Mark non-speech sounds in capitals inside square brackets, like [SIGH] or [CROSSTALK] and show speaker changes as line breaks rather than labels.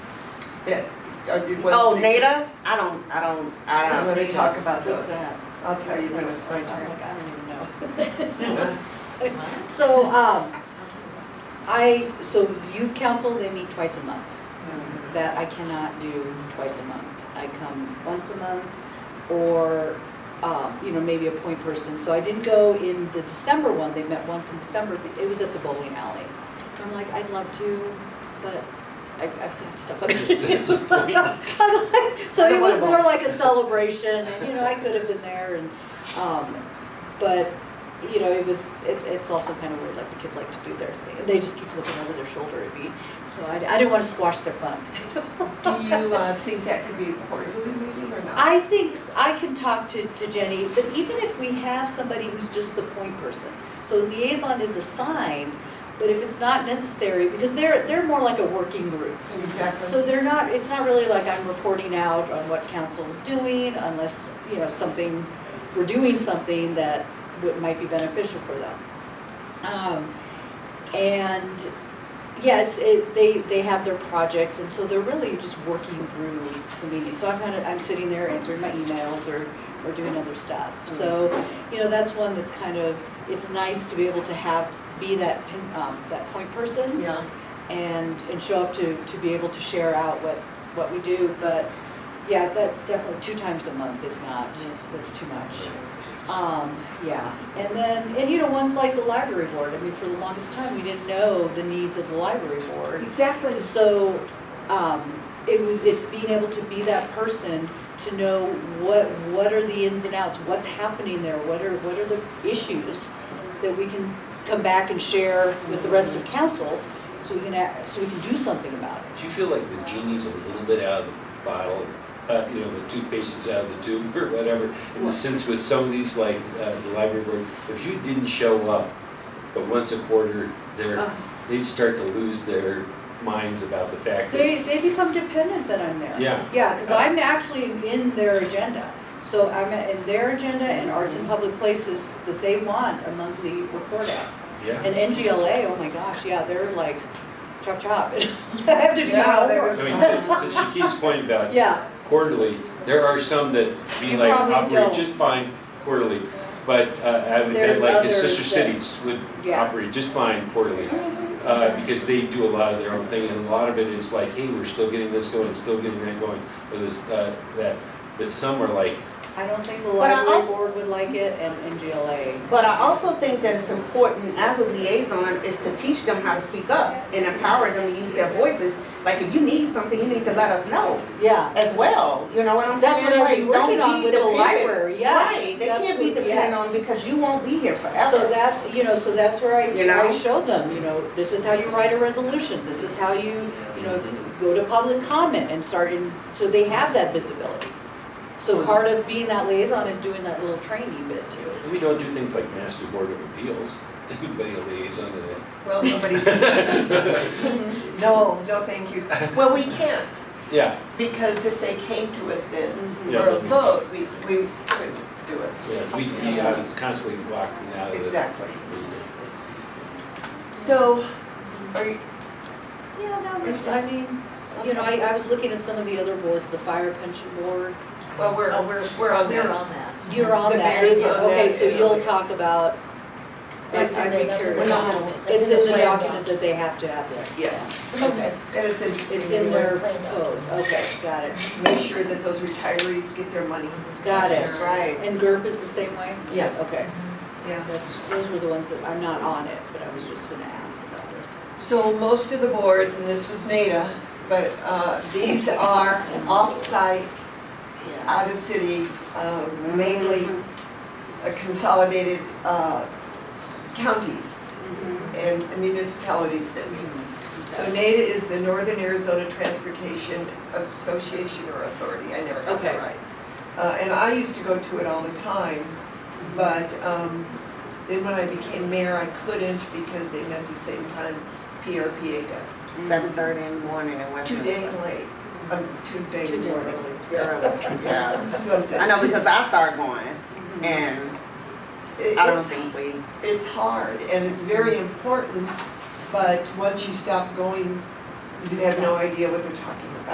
Yeah, uh, you want to
Oh,
see-
NADA? I don't, I don't, I
I'm
don't.
gonna talk about those.
What's that?
I'll tell you when it's my
Oh,
turn.
look, I don't even know.
[LAUGHS] So, um, I, so youth council, they meet twice a month.
Mm-hmm.
That I cannot do twice a month. I come once a month or, um, you know, maybe appoint person. So I didn't go in the December one, they met once in December, but it was at the bowling alley. I'm like, I'd love to, but I, I've got stuff. I gotta [LAUGHS] do. I'm like- So it was more like a celebration and, you know, I could have been there and, um, but, you know, it was, it, it's also kind of weird, like the kids like to do their thing. They just keep looking over their shoulder at me, so I, I didn't want to squash their fun. [LAUGHS]
Do you uh, think that could be a quarterly meeting or not?
I think s- I can talk to, to Jenny, but even if we have somebody who's just the point person, so liaison is assigned, but if it's not necessary, because they're, they're more like a working group. So
Exactly.
they're not, it's not really like I'm reporting out on what council is doing unless, you know, something, we're doing something that would- might be beneficial for them. Um, And, yeah, it's, it, they, they have their projects and so they're really just working through the meeting. So I'm kind of, I'm sitting there answering my emails or, or doing other stuff.
Hmm.
So, you know, that's one that's kind of, it's nice to be able to have, be that, pin- um, that point person
Yeah.
and, and show up to, to be able to share out what, what we do, but yeah, that's definitely, two times a month is not, that's too much. Um, yeah, and then, and you know, ones like the library board, I mean, for the longest time, we didn't know the needs of the library board.
Exactly.
So, um, it was, it's being able to be that person to know what, what are the ins and outs, what's happening there, what are, what are the issues that we can come back and share with the rest of council, so we can, act- so we can do something about it.
Do you feel like the genie's a little bit out of the bottle, uh, you know, the toothpaste is out of the tube [LAUGHS] or whatever? In the sense with some of these, like uh, the library board, if you didn't show up, but once a quarter,
Uh.
they're, they start to lose their minds about the fact that,
They, they become dependent that I'm there.
Yeah.
Yeah, because I'm actually in their agenda. So I'm in their agenda and Arts and Public Places that they want a monthly report out.
yeah.
And NGLA, oh my gosh, yeah, they're like chop chop. [LAUGHS] I have to do my
Yeah, they were-
homework.
I mean, to- to Shakib's point about
Yeah,
quarterly, there are some that be
You
like,
probably
operate
don't.
just fine quarterly. But uh, I would bet
There's
like his sister
others that-
cities would
Yeah.
operate just fine quarterly. uh, Because they do a lot of their own thing and a lot of it is like, hey, we're still getting this going, still getting that going, or this, uh, that. But some are like,
I don't think the
But I
library
also-
board would like it and NGLA.
But I also think that it's important as a liaison is to teach them how to speak up and empower them to use their voices. Like if you need something, you need to let us know
Yeah,
as well, you know what I'm saying?
That's what I've
Like,
been
don't
working on
be
with the
dependent-
library, yeah.
Right, they
That's
can't be
what-
dependent
yes.
on because you won't be here
so
forever.
that, you know, so that's where I,
You know?
I showed them, you know, this is how you write a resolution, this is how you, you know, go to public comment and start in, so they have that visibility. So part of being that liaison is doing that little training bit too.
we don't do things like master board of appeals. [LAUGHS] Anybody a liaison to
Well, nobody's,
[LAUGHS] that?
no, no, thank you. Well, we can't,
Yeah,
because if they came to us then for
Yeah.
a vote, we, we couldn't do it.
yeah, we, we I was constantly walking out of the.
Exactly. So, are you,
Yeah, that was, I mean, you know, I, I was looking at some of the other boards, the fire pension board,
well, we're,
Oh, we're-
we're on
They're
there.
on that.
you're on
The
that,
mayor's
isn't it?
on that,
okay, so
yeah.
you'll talk about.
It's in
I- I'd
the-
be
that's in
curious.
the document.
It's
That's in the
in the
plan
document
doc.
that they have to have there.
Yeah,
Okay.
and it's interesting.
It's in
to
their
plan doc.
code, okay, got it,
Make sure that those retirees get their money.
got
That's
it.
right.
And GURP is the same way?
Yes.
Okay,
Yeah.
that's, those were the ones that, I'm not on it, but I was just gonna ask about it.
So most of the boards, and this was NADA, but uh, these are off-site,
Yeah.
out-of-city, uh, mainly uh, consolidated uh, counties and municipalities that
Mm-hmm.
meet. So NADA is the Northern Arizona Transportation Association or Authority, I never got that
Okay.
right. Uh, And I used to go to it all the time,
Mm-hmm.
but um, then when I became mayor, I couldn't because they met the same time PRPA does.
Seven thirty in the morning in
Two
Westminster.
day late, um,
Mm-hmm.
two day
Two day
morning.
[LAUGHS]
Early, yeah.
Something.
I know because I started going
Mm-hmm.
and
It-
I don't
it's-
think we,
It's hard and it's very important, but once you stop going, you have no idea what they're talking about.